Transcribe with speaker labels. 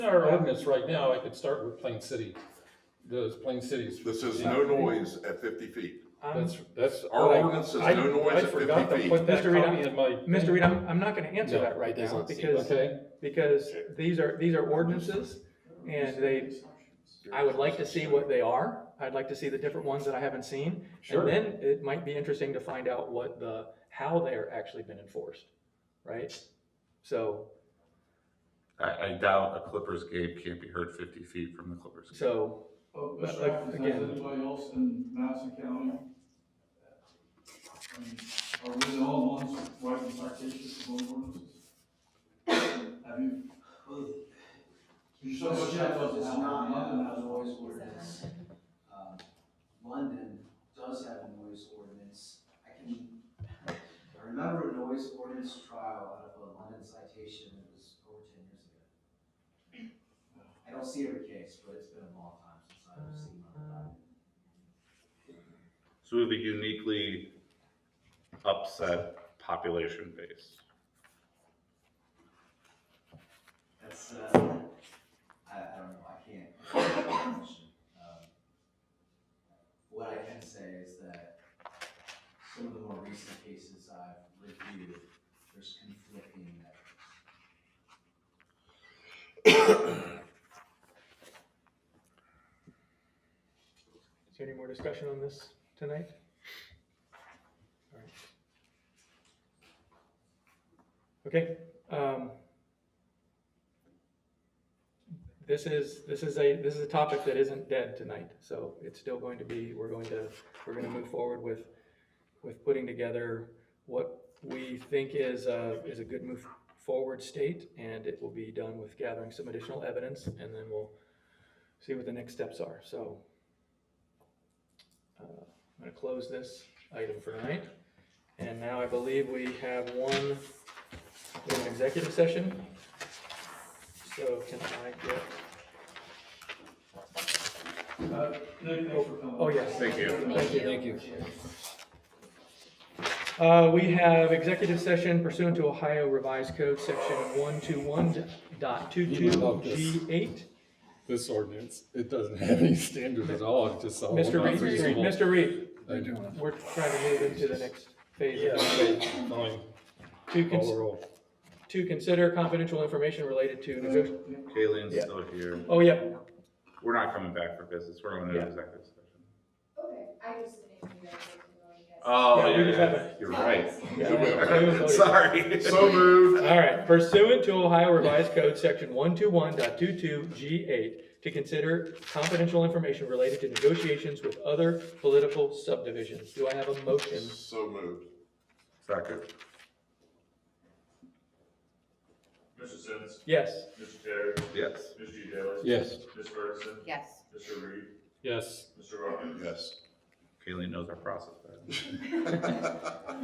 Speaker 1: Our ordinance right now, I could start with Plain City, does Plain City's.
Speaker 2: This is no noise at fifty feet.
Speaker 3: I'm-
Speaker 1: That's, that's.
Speaker 2: Our
Speaker 1: what I-
Speaker 2: ordinance is
Speaker 1: I-
Speaker 2: no noise at
Speaker 1: I forgot
Speaker 2: 50
Speaker 1: to put that
Speaker 3: feet. Mr. Reed,
Speaker 1: copy in my.
Speaker 3: Mr. Reed, I'm, I'm not gonna answer
Speaker 1: No,
Speaker 3: that right
Speaker 1: it
Speaker 3: now,
Speaker 1: doesn't seem-
Speaker 3: because,
Speaker 1: Okay,
Speaker 3: because these are, these are ordinances, and they, I would like to see what they are. I'd like to see the different ones that I haven't seen.
Speaker 1: Sure.
Speaker 3: And then it might be interesting to find out what the, how they're actually been enforced, right? So,
Speaker 4: I, I doubt a Clippers game can't be heard fifty feet from the Clippers. game.
Speaker 3: so,
Speaker 5: Oh,
Speaker 3: But,
Speaker 5: Mr.
Speaker 3: like,
Speaker 5: Atkins, has
Speaker 3: again-
Speaker 5: anybody else in Madison County? uh, I mean, Are we the only ones writing citations for local ordinances? Have you?
Speaker 6: You
Speaker 5: So much effort
Speaker 6: does
Speaker 5: is
Speaker 6: not
Speaker 5: not
Speaker 6: have
Speaker 5: enough.
Speaker 6: a noise ordinance. Um, London does have a noise ordinance. I can, I remember a noise ordinance trial out of a London citation that was over ten years ago. I don't see every case, but it's been a long time since I've seen one.
Speaker 4: So we have a uniquely upset population base.
Speaker 6: That's, uh, I, I don't know, I can't. answer that question. Um, What I can say is that some of the more recent cases I've reviewed, there's conflicting metrics.
Speaker 3: is there any more discussion on this tonight? All right. Okay, um. This is, this is a, this is a topic that isn't dead tonight, so it's still going to be, we're going to, we're gonna move forward with, with putting together what we think is, uh, is a good move forward state, and it will be done with gathering some additional evidence, and then we'll see what the next steps are, so. Uh, I'm gonna close this item for tonight, and now I believe we have one, we have an executive session. So can I get
Speaker 5: Uh, Nick, thanks for coming.
Speaker 3: Oh, yes.
Speaker 4: Thank you.
Speaker 3: Thank you.
Speaker 1: thank you.
Speaker 3: Uh, we have executive session pursuant to Ohio Revised Code, section one two one dot two
Speaker 1: You
Speaker 3: two
Speaker 1: love this.
Speaker 3: G eight.
Speaker 1: This ordinance, it doesn't have any standard at all, it's
Speaker 4: Oh,
Speaker 1: just all.
Speaker 3: Mr. Reed,
Speaker 1: unreasonable.
Speaker 3: Mr. Reed,
Speaker 1: Thank you.
Speaker 3: we're trying to move into the next phase.
Speaker 1: Yeah,
Speaker 3: of this.
Speaker 1: okay, fine,
Speaker 3: To
Speaker 1: call the
Speaker 3: cons-
Speaker 1: roll.
Speaker 3: to consider confidential information related to negoti-
Speaker 4: Kaylee's still here.
Speaker 3: oh, yeah,
Speaker 4: We're not coming back for business. We're going to
Speaker 3: Yeah.
Speaker 4: executive session.
Speaker 7: Okay, I just didn't hear that.
Speaker 4: Oh,
Speaker 3: Yeah, we just have
Speaker 4: You're right.
Speaker 3: Yeah.
Speaker 4: Sorry.
Speaker 2: So moved.
Speaker 3: All right, pursuant to Ohio Revised Code, section 121.22G8, to consider confidential information related to negotiations with other political subdivisions. Do I have a motion?
Speaker 2: So moved.
Speaker 4: Second.
Speaker 8: Mr. Sims,
Speaker 3: Yes.
Speaker 8: Mr. Terry,
Speaker 4: Yes.
Speaker 8: Mr. G. Daly,
Speaker 1: Yes.
Speaker 8: Ms. Ferguson,
Speaker 7: Yes.
Speaker 8: Mr. Reed,
Speaker 1: Yes.
Speaker 8: Mr. Robbins.
Speaker 2: Yes.
Speaker 4: Kaylee knows our process better.